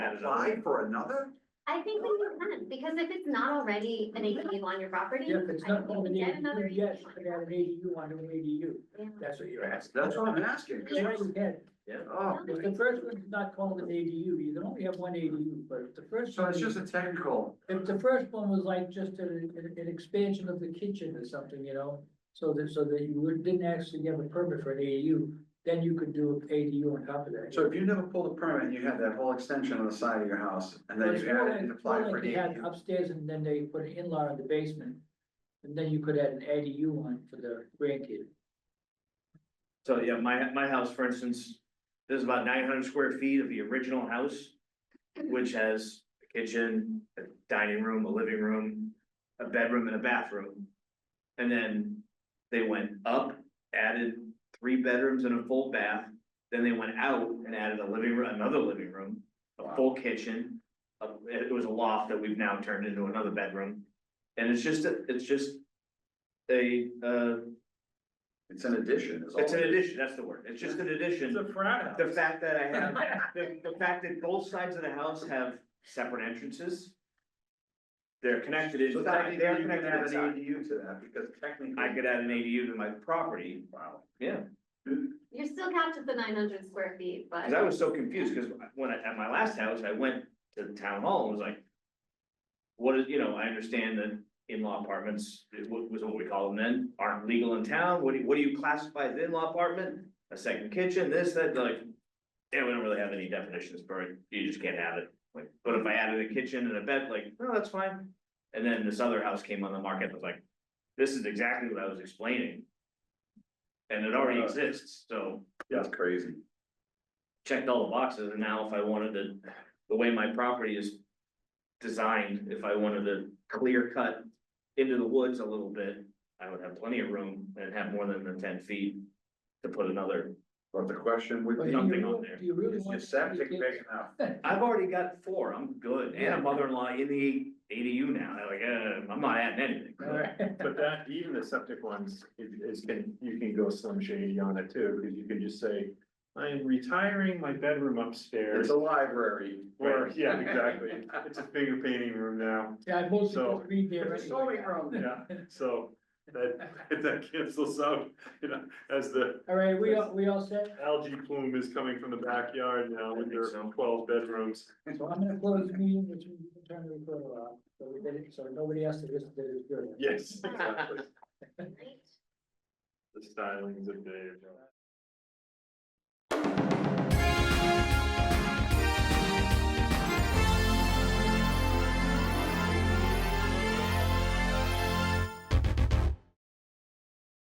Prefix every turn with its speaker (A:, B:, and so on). A: apply for another?
B: I think that you can, because if it's not already an ADU on your property.
C: Yeah, if it's
B: I
C: not
B: think you
C: called an
B: can get another
C: ADU, yes,
B: ADU on your
C: I got an ADU, I do an ADU,
B: property.
C: that's what you're asking.
A: That's what I'm asking. 'cause
C: That's what
A: you-
C: you had.
A: Oh,
C: If the first one's not called an ADU, you can only have one ADU, but if the first.
A: so it's
C: one-
A: just a technical,
C: If the first one was like just an, an- an expansion of the kitchen or something, you know, so that, so that you would- didn't actually have a permit for an ADU, then you could do an ADU on top of that.
A: so if you never pulled a permit, and you had that whole extension on the side of your house, and then
C: It's
A: you
C: more
A: added
C: like-
A: and
C: more
A: applied
C: like
A: for an
C: they had
A: ADU.
C: Upstairs and then they put an in-law in the basement, and then you could add an ADU on for the grandkid.
D: So, yeah, my, my house, for instance, there's about nine hundred square feet of the original house, which has a kitchen, a dining room, a living room, a bedroom and a bathroom. And then they went up, added three bedrooms and a full bath, then they went out and added a living room, another living room, a full kitchen. a- it was a loft that we've now turned into another bedroom, and it's just, a- it's just a, uh,
A: It's an addition, is all.
D: it's an
A: it is.
D: addition, that's the word, it's just an addition.
C: frat
D: The fact that I have, the, the fact that both sides of the house have separate entrances. They're connected
A: So
D: inside,
A: technically,
D: they're
A: you can
D: connected
A: add
D: inside.
A: an ADU to that, because technically.
D: I could add an ADU to my property,
A: Wow.
B: You're still capped at the nine hundred square feet, but.
D: cause I was so confused, cause when I, at my last house, I went to the town hall and was like. What is, you know, I understand that in-law apartments, it wa- was what we call them then, aren't legal in town, what do, you- what do you classify as in-law apartment? A second kitchen, this, that, they're like, yeah, we don't really have any definitions for it, you just can't have it. Like, but if I added a kitchen and a bed, like, no, that's fine. And then this other house came on the market, and was like, this is exactly what I was explaining. And it already exists, so
A: That's crazy.
D: checked all the boxes, and now if I wanted to, the way my property is. Designed, if I wanted to clear cut into the woods a little bit, I would have plenty of room and have more than the ten feet. To put another,
A: But the question would
C: But
A: be,
C: do
D: Something
C: you,
D: on
C: re-
D: there.
C: do you really
A: is your
C: want?
A: septic big enough?
D: I've already got four, I'm good, and a mother-in-law in the ADU now, like, uh, I'm not adding anything.
C: Alright.
E: But that, even the septic ones, is, is can, you can go slim shady on it too, because you can just say, I am retiring my bedroom
A: It's
E: upstairs.
A: a library.
E: Or, yeah, exactly, it's a bigger painting room now,
C: Yeah, I mostly
E: So-
C: just read there
A: It's a sewing
C: anyway.
A: room.
E: yeah, so that, that cancels out, you know, as the
C: Alright, we all, we all set?
E: algae plume is coming from the backyard now with
D: I
E: their
D: think so.
E: twelve bedrooms.
C: So I'm gonna close the meeting, which we can turn the recorder off, so we did it, so nobody else that isn't, that is good.
E: Yes, exactly,
B: Right?
E: the stylings of Dave.